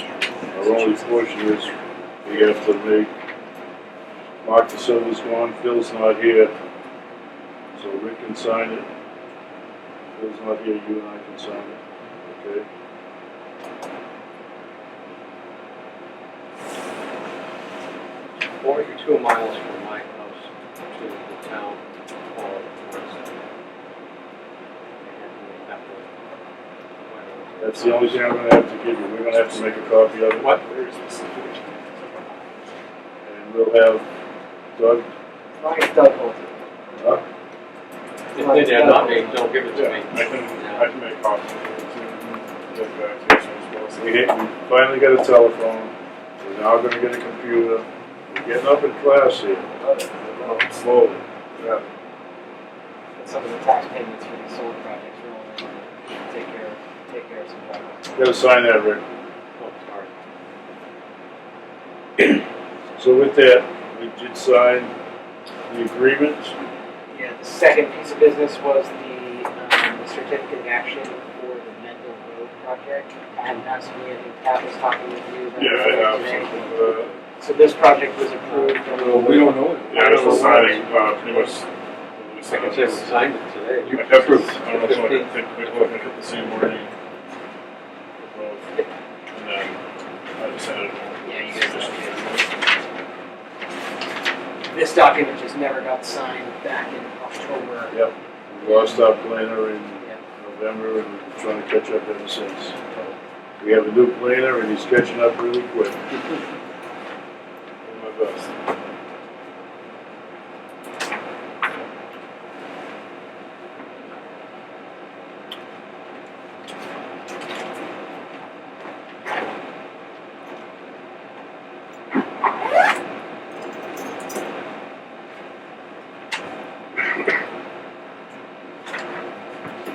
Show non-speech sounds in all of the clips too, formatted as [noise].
The only portion is we have to make, Mark the silver's gone, Phil's not here, so Rick can sign it. Phil's not here, you and I can sign it, okay? Forty-two miles from my house to the town hall. was- and that was- That's the only thing I'm gonna have to give you, we're gonna have to make a copy of it. What? And we'll have Doug, Ryan's done both. uh, If they did not, they don't give it to Yeah, me. I can, I can make copies. of it too. Get back to you as We well. hit, we finally got a telephone, we're now gonna get a computer, we're getting up in class here, slowly. Yeah. Some of the tax payments for these solar projects are only gonna take care, of- take care of some problems. Gotta sign that, Rick. Oh, sorry. So with that, we did sign the agreement, Yeah, the second piece of business was the, um, the certificate of action for the Mendel Road project. I had not seen it, I think Pat was talking with you. about Yeah, it I have today. something for that. So this project was approved. Uh, Well, we don't know. it. Yeah, I was signing, uh, pretty much. I can say we signed it today. I have proof. I don't know if I think we're looking at the same wording. for both. And then I just added. Yeah, you guys This document just never got signed back in October. we lost our planner in Yeah. November and we're trying to catch up ever since. We have a new planner and he's catching up really quick. [laughs] Doing my best.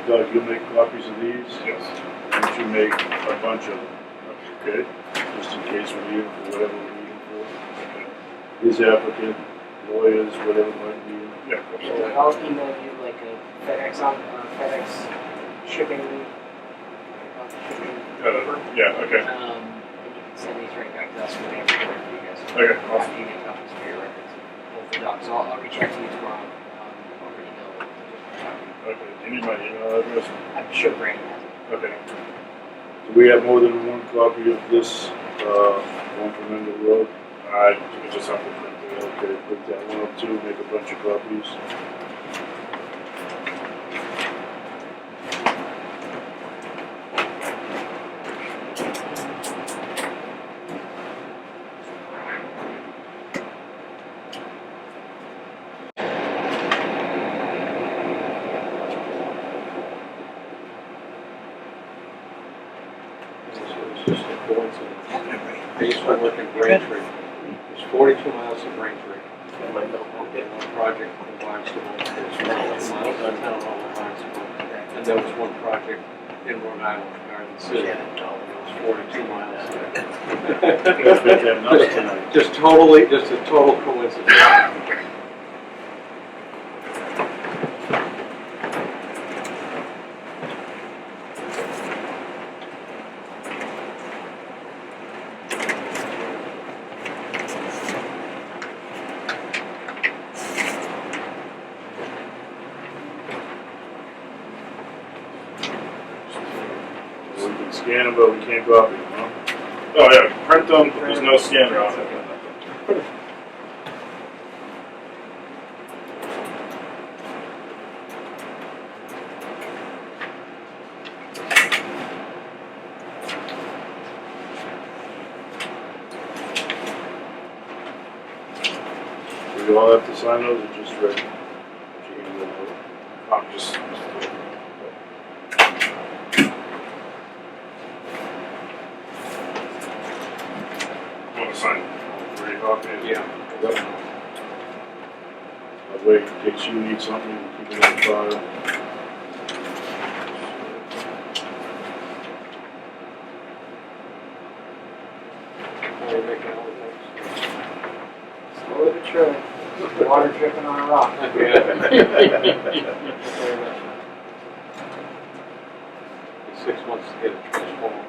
Doug, you'll make copies of these, Yes. and you make a bunch of them, okay? Just in case we need them for whatever we need them for. His applicant, lawyers, whatever might be. Yeah. So absolutely. I'll email you like a FedEx on, uh, FedEx shipping, uh, shipping paper. Uh, Yeah, okay, Um, and you can send these right back to us when we have it ready for you guys. okay, awesome. After you get copies for your records. Both the docs, I'll, I'll reach out to you tomorrow, um, or email. Okay, do you need my email address? I'm sure Brandon has it. Okay. Do we have more than one copy of this, uh, one from Mendel Road? I we just have to print it. Okay, put that one up too, make a bunch of copies. This is just a coincidence. I used to work in Braintree. It's forty-two miles to Braintree. And my notebook, one project in Barnstable, there's one mile downtown on Barnstable. And there was one project in Rhode Island, Garden City. and It was forty-two Let's miles. make that nuts tonight. Just totally, just a total coincidence. We can scan them, but we can't copy them, huh? Oh, yeah, print them, but there's no scanner on it. [laughs] Do we all have to sign those or just Rick? She can do that. I'm just. Want to sign all three copies? Yeah. That way, in case you need something, you keep it on file. Are you making all the notes? [laughs] Slowly but surely, water dripping on a rock. Six months to get a transformer.